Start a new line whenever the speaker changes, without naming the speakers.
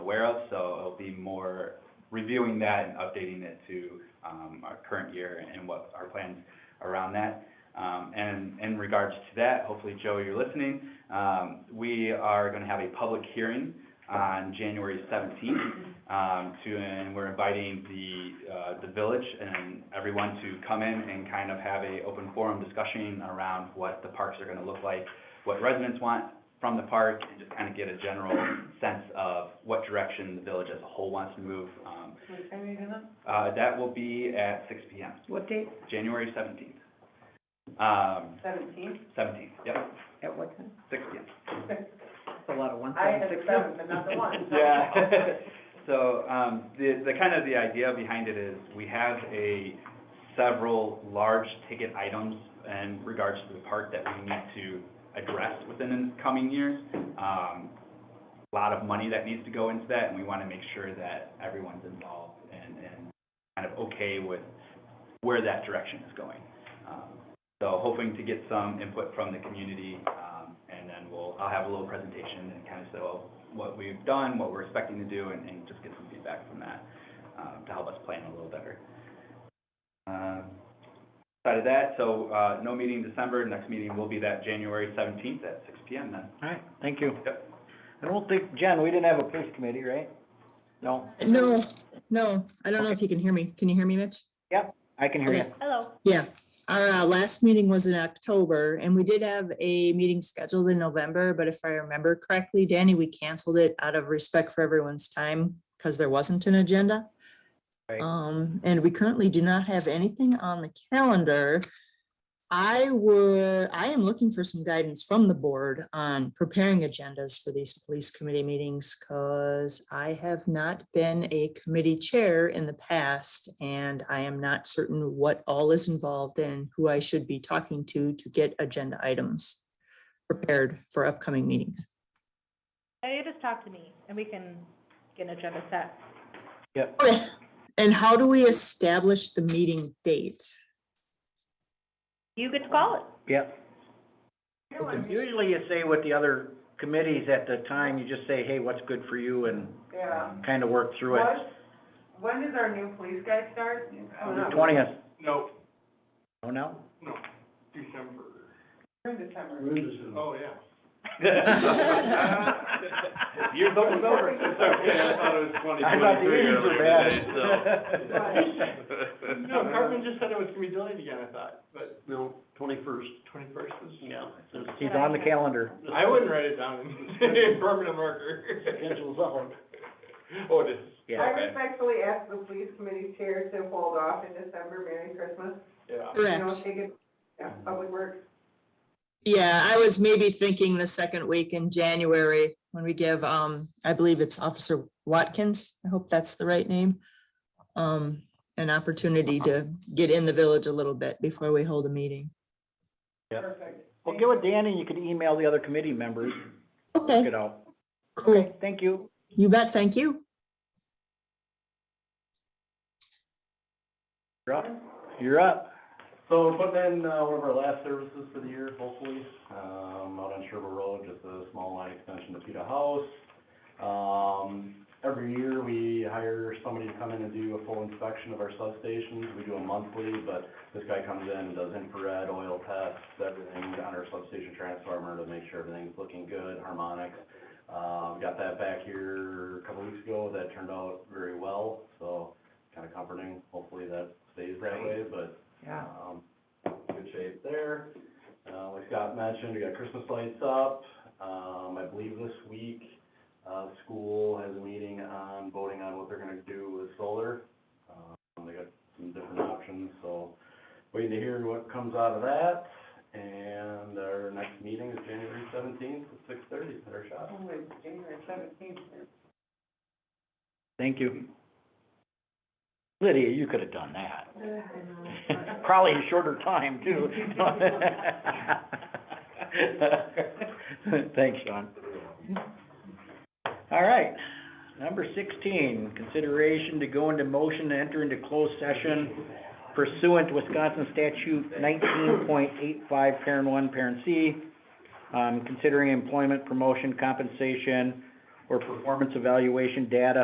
aware of, so it'll be more reviewing that and updating it to, um, our current year and what our plans around that. Um, and in regards to that, hopefully, Joe, you're listening, um, we are gonna have a public hearing on January seventeenth, um, to, and we're inviting the, uh, the village and everyone to come in and kind of have a open forum discussion around what the parks are gonna look like, what residents want from the park, and just kind of get a general sense of what direction the village as a whole wants to move. Um,
What time are you doing that?
uh, that will be at six P M,
What date?
January seventeenth. Um,
Seventeenth?
seventeenth, yep,
At what time?
six P M.
That's a lot of ones.
I had seven, but not the one.
Yeah. So, um, the, the kind of the idea behind it is we have a several large ticket items in regards to the park that we need to address within the coming years. Um, a lot of money that needs to go into that and we want to make sure that everyone's involved and, and kind of okay with where that direction is going. Um, So hoping to get some input from the community, um, and then we'll, I'll have a little presentation and kind of show what we've done, what we're expecting to do, and, and just get some feedback from that, um, to help us plan a little better. Um, Aside of that, so, uh, no meeting in December, next meeting will be that January seventeenth at six P M then.
All right, thank you.
Yep.
I don't think, Jen, we didn't have a police committee, right? No,
No, no, I don't know if you can hear me. Can you hear me, Mitch?
I can hear you.
Hello.
Yeah, our uh, last meeting was in October and we did have a meeting scheduled in November, but if I remember correctly, Danny, we canceled it out of respect for everyone's time because there wasn't an agenda.
Right.
Um, and we currently do not have anything on the calendar. I would, I am looking for some guidance from the board on preparing agendas for these police committee meetings because I have not been a committee chair in the past and I am not certain what all is involved and who I should be talking to to get agenda items prepared for upcoming meetings.
Uh, You just talk to me and we can get an agenda set.
Yep,
Okay, And how do we establish the meeting date?
You get to call it.
yep. Usually you say with the other committees at the time, you just say, hey, what's good for you and
Yeah.
kind of work through it.
What- When does our new police guy start? Oh, no.
Twentieth,
No,
oh no?
December.
We're in December.
Oh, yeah.
Year's almost over.
It's okay, I thought it was twenty
I thought the
twenty-three
meetings
earlier
were bad.
today,
so-
so. No, Cartman just said it was gonna be delayed again, I thought, but. No, twenty-first. Twenty-first is? Yeah.
He's on the calendar.
I wouldn't write it down in permanent marker. Schedule's on. Oh, it is.
I
Yeah,
respectfully ask the police committee chair to hold off in December, Merry Christmas.
Yeah.
You know,
Correct.
take it, yeah, public works.
Yeah, I was maybe thinking the second week in January when we give, um, I believe it's Officer Watkins. I hope that's the right name. Um, an opportunity to get in the village a little bit before we hold a meeting.
Yep.
Perfect.
well, get with Danny, you could email the other committee members, work
Okay,
it out.
cool.
Thank you.
You bet. Thank you.
You're up. You're up.
So we're putting in, uh, one of our last services for the year, hopefully, um, out on Sherwood Road, just a small line extension to Peta House. Um, every year, we hire somebody to come in and do a full inspection of our substations, we do them monthly, but this guy comes in and does infrared oil tests, everything on our substation transformer to make sure everything's looking good, harmonics. Uh, we got that back here a couple weeks ago, that turned out very well, so kinda comforting, hopefully that stays that way, but
Yeah.
um, good shape there. Uh, like Scott mentioned, we got Christmas lights up. Um, I believe this week, uh, school has a meeting on voting on what they're gonna do with solar. Um, they got some different options, so waiting to hear what comes out of that. And our next meeting is January seventeenth at six thirty at our shop.
Oh, it's January seventeenth.
Thank you. Lydia, you could have done that.
I know.
Probably a shorter time too. Thanks, Sean. All right, number sixteen, consideration to go into motion to enter into closed session pursuant to Wisconsin statute nineteen point eight five, parent one, parent C, um, considering employment, promotion, compensation, or performance evaluation data